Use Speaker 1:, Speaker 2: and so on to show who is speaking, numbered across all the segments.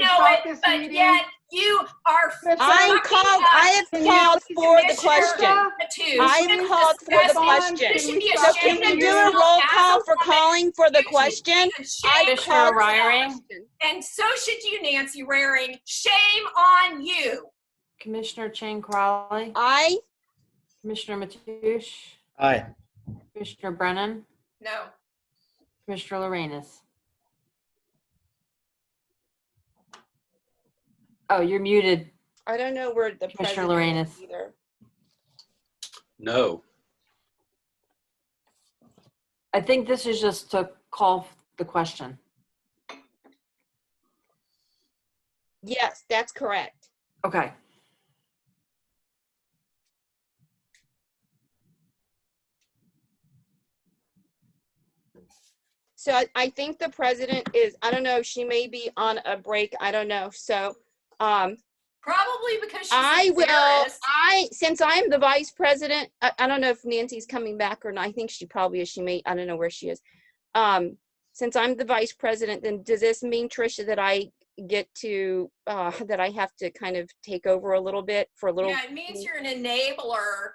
Speaker 1: stop this
Speaker 2: but
Speaker 1: meeting?
Speaker 2: yet you are.
Speaker 1: Mr.
Speaker 2: fucking
Speaker 3: I'm
Speaker 2: up
Speaker 3: called, I
Speaker 1: Can
Speaker 3: have
Speaker 1: you please
Speaker 3: called for the
Speaker 2: Commissioner
Speaker 3: question.
Speaker 2: Matthews.
Speaker 3: I am
Speaker 2: You've
Speaker 3: called for the
Speaker 2: discussed it.
Speaker 3: question.
Speaker 2: You should be
Speaker 1: So
Speaker 3: So
Speaker 2: ashamed
Speaker 3: can
Speaker 2: of
Speaker 3: you do a
Speaker 2: yourself
Speaker 3: roll
Speaker 2: as
Speaker 3: call for
Speaker 2: woman.
Speaker 3: calling for the
Speaker 2: You should be
Speaker 3: question?
Speaker 2: ashamed
Speaker 3: I
Speaker 2: of
Speaker 3: called-
Speaker 4: Commissioner
Speaker 2: yourself.
Speaker 4: Raring,
Speaker 2: And so should you, Nancy Raring. Shame on you.
Speaker 4: Commissioner Chang Crowley,
Speaker 3: I,
Speaker 4: Commissioner Mathush,
Speaker 5: Aye.
Speaker 4: Commissioner Brennan,
Speaker 2: No.
Speaker 4: Commissioner Lorenz. Oh, you're muted.
Speaker 3: I don't know where the
Speaker 4: Commissioner
Speaker 3: president is
Speaker 4: Lorenz.
Speaker 3: either.
Speaker 5: No.
Speaker 4: I think this is just to call the question.
Speaker 3: Yes, that's correct.
Speaker 4: Okay.
Speaker 3: So I, I think the president is, I don't know, she may be on a break, I don't know. So um,
Speaker 2: Probably because she's
Speaker 3: I will,
Speaker 2: embarrassed.
Speaker 3: I, since I'm the vice president, I, I don't know if Nancy's coming back or not. I think she probably is. She may, I don't know where she is. Um, since I'm the vice president, then does this mean, Tricia, that I get to, uh, that I have to kind of take over a little bit for a little?
Speaker 2: Yeah, it means you're an enabler.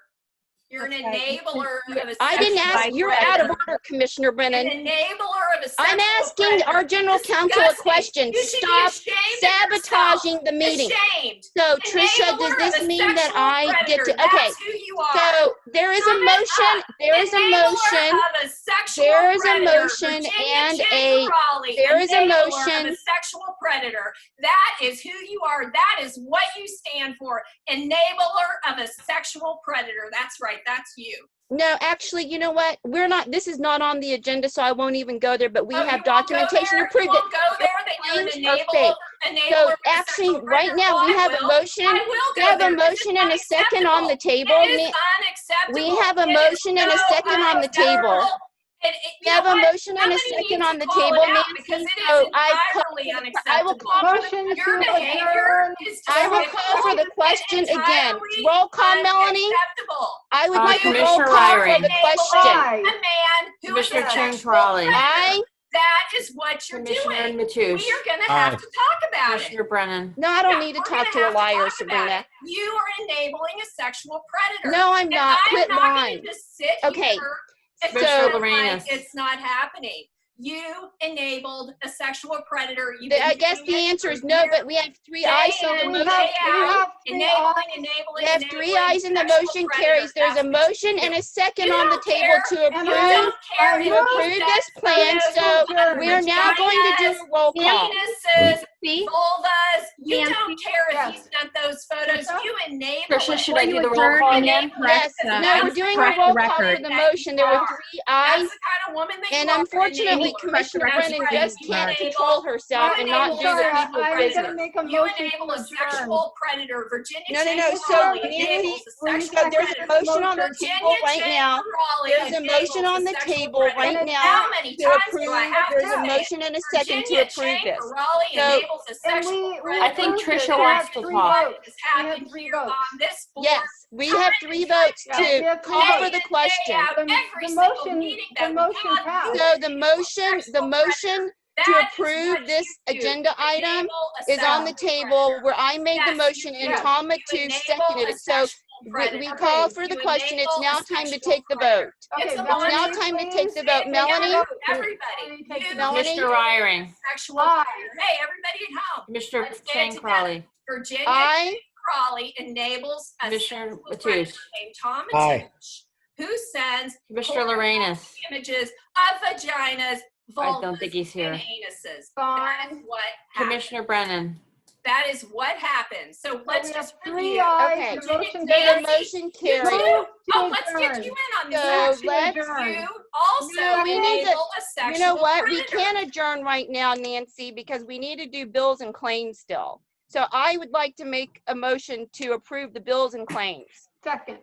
Speaker 2: You're an
Speaker 1: Okay.
Speaker 2: enabler of a.
Speaker 3: I didn't
Speaker 2: sexual
Speaker 3: ask, you're out of
Speaker 2: predator.
Speaker 3: order, Commissioner
Speaker 2: An
Speaker 3: Brennan.
Speaker 2: enabler of a.
Speaker 3: I'm
Speaker 2: sexual
Speaker 3: asking
Speaker 2: predator.
Speaker 3: our general counsel a
Speaker 2: Disgusting.
Speaker 3: question.
Speaker 2: You should be
Speaker 3: Stop
Speaker 2: ashamed of yourself.
Speaker 3: sabotaging the meeting.
Speaker 2: Ashamed.
Speaker 3: So Tricia,
Speaker 2: Enabler
Speaker 3: does
Speaker 2: of
Speaker 3: this
Speaker 2: a
Speaker 3: mean that
Speaker 2: sexual
Speaker 3: I get
Speaker 2: predator.
Speaker 3: to, okay.
Speaker 2: That's who you are.
Speaker 3: So there is a
Speaker 2: Sum it
Speaker 3: motion, there is a
Speaker 2: Enabler
Speaker 3: motion.
Speaker 2: of a sexual
Speaker 3: There is a
Speaker 2: predator.
Speaker 3: motion
Speaker 2: Virginia
Speaker 3: and
Speaker 2: J.
Speaker 3: a-
Speaker 2: Crowley,
Speaker 3: there is a
Speaker 2: enabler of
Speaker 3: motion.
Speaker 2: a sexual predator. That is who you are. That is what you stand for. Enabler of a sexual predator. That's right. That's you.
Speaker 3: No, actually, you know what? We're not, this is not on the agenda, so I won't even go there, but we
Speaker 2: Oh, you
Speaker 3: have
Speaker 2: won't go
Speaker 3: documentation
Speaker 2: there?
Speaker 3: to prove
Speaker 2: You
Speaker 3: it.
Speaker 2: won't go there. That you're an
Speaker 3: Claims are
Speaker 2: enabler.
Speaker 3: fake.
Speaker 2: enabler
Speaker 3: So
Speaker 2: of a
Speaker 3: actually,
Speaker 2: sexual
Speaker 3: right
Speaker 2: predator.
Speaker 3: now, we
Speaker 2: I
Speaker 3: have a
Speaker 2: will.
Speaker 3: motion,
Speaker 2: I will
Speaker 3: we
Speaker 2: go
Speaker 3: have a
Speaker 2: there. This is
Speaker 3: motion and a second on the
Speaker 2: unacceptable.
Speaker 3: table.
Speaker 2: It is
Speaker 3: Ni-
Speaker 2: unacceptable.
Speaker 3: we have a
Speaker 2: It is
Speaker 3: motion and a
Speaker 2: so
Speaker 3: second on the table.
Speaker 2: unacceptable. And it- you
Speaker 3: We have
Speaker 2: know
Speaker 3: a
Speaker 2: what?
Speaker 3: motion and a
Speaker 2: Somebody
Speaker 3: second
Speaker 2: needs
Speaker 3: on
Speaker 2: to
Speaker 3: the
Speaker 2: call it
Speaker 3: table,
Speaker 2: out because
Speaker 3: Nancy,
Speaker 2: it is
Speaker 3: so I call-
Speaker 2: entirely
Speaker 3: I will
Speaker 2: unacceptable.
Speaker 3: call,
Speaker 1: Motion
Speaker 2: Your
Speaker 1: to
Speaker 2: behavior
Speaker 1: adjourn.
Speaker 2: is
Speaker 3: I will
Speaker 2: just
Speaker 3: call for the question again.
Speaker 2: entirely
Speaker 3: Roll call, Melanie.
Speaker 2: unacceptable.
Speaker 3: I would
Speaker 4: Uh,
Speaker 3: like a roll
Speaker 4: Commissioner
Speaker 3: call for
Speaker 4: Raring.
Speaker 3: the
Speaker 2: A
Speaker 3: question.
Speaker 1: Aye.
Speaker 2: man who is a
Speaker 4: Commissioner Chang
Speaker 2: sexual
Speaker 4: Trolley.
Speaker 2: predator.
Speaker 3: I,
Speaker 2: That is what you're
Speaker 4: Commissioner
Speaker 2: doing. We
Speaker 4: Mathush,
Speaker 2: are gonna have
Speaker 5: Aye.
Speaker 2: to talk about it.
Speaker 4: Commissioner Brennan.
Speaker 3: no, I don't
Speaker 2: Yeah,
Speaker 3: need to
Speaker 2: we're
Speaker 3: talk
Speaker 2: gonna
Speaker 3: to
Speaker 2: have
Speaker 3: a liar,
Speaker 2: talk about
Speaker 3: Sabrina.
Speaker 2: it. You are enabling a sexual predator.
Speaker 3: No, I'm
Speaker 2: And
Speaker 3: not.
Speaker 2: I'm
Speaker 3: Quit
Speaker 2: not gonna
Speaker 3: lying.
Speaker 2: just sit
Speaker 3: Okay,
Speaker 2: here and
Speaker 3: so-
Speaker 2: pretend like
Speaker 4: Lorenas.
Speaker 2: It's not happening. You enabled a sexual predator. You've
Speaker 3: The- I
Speaker 2: been
Speaker 3: guess
Speaker 2: doing
Speaker 3: the
Speaker 2: it
Speaker 3: answer
Speaker 2: for
Speaker 3: is no,
Speaker 2: years.
Speaker 3: but we have three
Speaker 2: Day
Speaker 3: ayes, so the
Speaker 2: in,
Speaker 1: we
Speaker 3: motion
Speaker 2: day
Speaker 3: carries.
Speaker 2: out,
Speaker 1: three
Speaker 2: enabling,
Speaker 1: ayes.
Speaker 2: enabling.
Speaker 3: We have three
Speaker 2: enabling
Speaker 3: ayes and the
Speaker 2: sexual
Speaker 3: motion
Speaker 2: predator.
Speaker 3: carries. There's a
Speaker 2: That's-
Speaker 3: motion and a second
Speaker 2: You
Speaker 3: on the
Speaker 2: don't
Speaker 3: table
Speaker 2: care.
Speaker 3: to
Speaker 1: And
Speaker 2: You
Speaker 3: approve.
Speaker 2: don't care.
Speaker 1: to
Speaker 2: who
Speaker 3: approve
Speaker 2: says
Speaker 3: this plan,
Speaker 2: photos,
Speaker 3: so
Speaker 2: vaginas,
Speaker 3: We are now going to do a roll call.
Speaker 2: Penises,
Speaker 3: See?
Speaker 2: vulvas. You don't care if you
Speaker 1: Yes.
Speaker 2: sent those photos. You enable
Speaker 4: Tricia,
Speaker 2: it.
Speaker 4: should I uh, do the roll call again?
Speaker 3: Yes, no, we're doing a roll call for the motion. There were three
Speaker 2: That's the
Speaker 3: ayes,
Speaker 2: kind of woman that
Speaker 3: and
Speaker 2: you are.
Speaker 3: unfortunately, Commissioner Brennan just can't control herself and not do
Speaker 2: Sorry,
Speaker 3: the
Speaker 2: I-
Speaker 3: people
Speaker 2: I'm
Speaker 1: I'm
Speaker 3: business.
Speaker 1: gonna make a
Speaker 2: You
Speaker 1: motion
Speaker 2: enable
Speaker 1: to
Speaker 2: a
Speaker 1: adjourn.
Speaker 2: sexual predator, Virginia.
Speaker 3: No, no,
Speaker 2: Cheney
Speaker 3: no, so
Speaker 2: Raleigh
Speaker 3: Nancy,
Speaker 2: enables a
Speaker 3: we're
Speaker 2: sexual
Speaker 3: gonna- there's a
Speaker 2: predator.
Speaker 3: motion on the
Speaker 2: Virginia
Speaker 3: table right
Speaker 2: Cheney
Speaker 3: now.
Speaker 2: Raleigh
Speaker 3: There's a
Speaker 2: enables
Speaker 3: motion on the
Speaker 2: sexual
Speaker 3: table
Speaker 2: predator.
Speaker 3: right
Speaker 1: And
Speaker 3: now
Speaker 2: How many
Speaker 3: to
Speaker 2: times
Speaker 3: approve.
Speaker 2: do I have
Speaker 3: There's
Speaker 2: to
Speaker 3: a
Speaker 2: say it?
Speaker 3: motion and a second to
Speaker 2: Virginia
Speaker 3: approve
Speaker 2: Cheney
Speaker 3: this.
Speaker 2: Raleigh
Speaker 3: So-
Speaker 2: enables a
Speaker 1: And
Speaker 2: sexual
Speaker 1: we- we
Speaker 2: predator.
Speaker 4: I think
Speaker 1: approved it.
Speaker 4: Tricia
Speaker 1: We
Speaker 4: wants
Speaker 1: had
Speaker 4: to
Speaker 1: three
Speaker 4: talk.
Speaker 1: votes.
Speaker 2: It's
Speaker 1: We had
Speaker 2: happened
Speaker 1: three
Speaker 2: here on
Speaker 1: votes.
Speaker 2: this board.
Speaker 3: Yes, we have three votes
Speaker 1: Yeah, we
Speaker 3: to
Speaker 1: have three
Speaker 3: call for
Speaker 1: votes.
Speaker 3: the
Speaker 2: Day
Speaker 3: question.
Speaker 2: out,
Speaker 1: The-
Speaker 2: every
Speaker 1: the
Speaker 2: single
Speaker 1: motion-
Speaker 2: meeting
Speaker 1: the
Speaker 2: that we
Speaker 1: motion
Speaker 2: have,
Speaker 1: passed.
Speaker 3: So the motion, the motion to
Speaker 2: That is what
Speaker 3: approve
Speaker 2: you
Speaker 3: this
Speaker 2: do.
Speaker 3: agenda item
Speaker 2: Enable a
Speaker 3: is on the
Speaker 2: sexual
Speaker 3: table
Speaker 2: predator.
Speaker 3: where I made the
Speaker 2: Yes,
Speaker 3: motion
Speaker 2: you
Speaker 3: and
Speaker 1: did.
Speaker 3: Tom
Speaker 2: You
Speaker 3: Mathush
Speaker 2: enable
Speaker 3: seconded
Speaker 2: a
Speaker 3: it. So
Speaker 2: sexual
Speaker 3: we- we
Speaker 2: predator.
Speaker 3: call for the
Speaker 2: You
Speaker 3: question. It's
Speaker 2: enable
Speaker 3: now
Speaker 2: a
Speaker 3: time to
Speaker 2: sexual
Speaker 3: take the
Speaker 2: predator.
Speaker 3: vote.
Speaker 1: Okay,
Speaker 2: It's
Speaker 1: Melanie,
Speaker 3: now time to take
Speaker 1: please.
Speaker 3: the vote.
Speaker 2: Take
Speaker 3: Melanie?
Speaker 2: vote, Everybody.
Speaker 1: Take the
Speaker 2: You,
Speaker 3: vote. Melanie?
Speaker 4: Commissioner Raring,
Speaker 2: Sexual
Speaker 1: Aye.
Speaker 2: predator. Hey, everybody at home.
Speaker 4: Commissioner
Speaker 2: Let's get it
Speaker 4: Chang Crowley,
Speaker 2: Virginia
Speaker 3: I
Speaker 2: Crawley enables a
Speaker 4: Commissioner
Speaker 2: sexual
Speaker 4: Mateusz.
Speaker 2: predator named Tom
Speaker 5: Aye.
Speaker 2: Mateusz, who sends
Speaker 4: Commissioner Lorenz.
Speaker 2: images of vaginas,
Speaker 4: I don't
Speaker 2: vulvas,
Speaker 4: think he's
Speaker 2: and
Speaker 4: here.
Speaker 2: anuses. That is
Speaker 1: Fine.
Speaker 2: what happens.
Speaker 4: Commissioner Brennan,
Speaker 2: That is what happens. So
Speaker 1: So
Speaker 2: let's
Speaker 1: we have
Speaker 2: just
Speaker 1: Three
Speaker 2: review.
Speaker 1: ayes, the
Speaker 2: Okay.
Speaker 1: motion
Speaker 3: So the
Speaker 1: carries.
Speaker 3: motion
Speaker 2: You
Speaker 1: Move
Speaker 3: carried.
Speaker 2: too?
Speaker 1: to
Speaker 2: Oh, let's get
Speaker 1: adjourn.
Speaker 2: you in
Speaker 1: Motion
Speaker 2: on this.
Speaker 3: So
Speaker 1: to
Speaker 3: let's
Speaker 1: adjourn.
Speaker 2: You also
Speaker 3: No, we need to-
Speaker 2: enable a sexual
Speaker 3: You know what? We
Speaker 2: predator.
Speaker 3: can't adjourn right now, Nancy, because we need to do bills and claims still. So I would like to make a motion to approve the bills and claims.
Speaker 1: Second.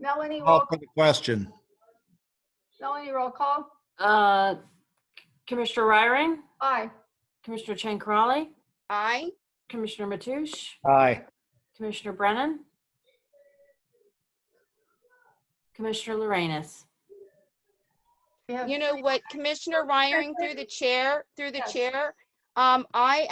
Speaker 1: Melanie, roll,
Speaker 6: Call for the question.
Speaker 1: Melanie, roll call.
Speaker 4: uh, Commissioner Raring,
Speaker 1: Aye.
Speaker 4: Commissioner Chang Crowley,
Speaker 3: Aye.
Speaker 4: Commissioner Mathush,
Speaker 5: Aye.
Speaker 4: Commissioner Brennan, Commissioner Lorenz.
Speaker 1: We have
Speaker 3: You know what, Commissioner Ryan, through the chair, through the chair, um, I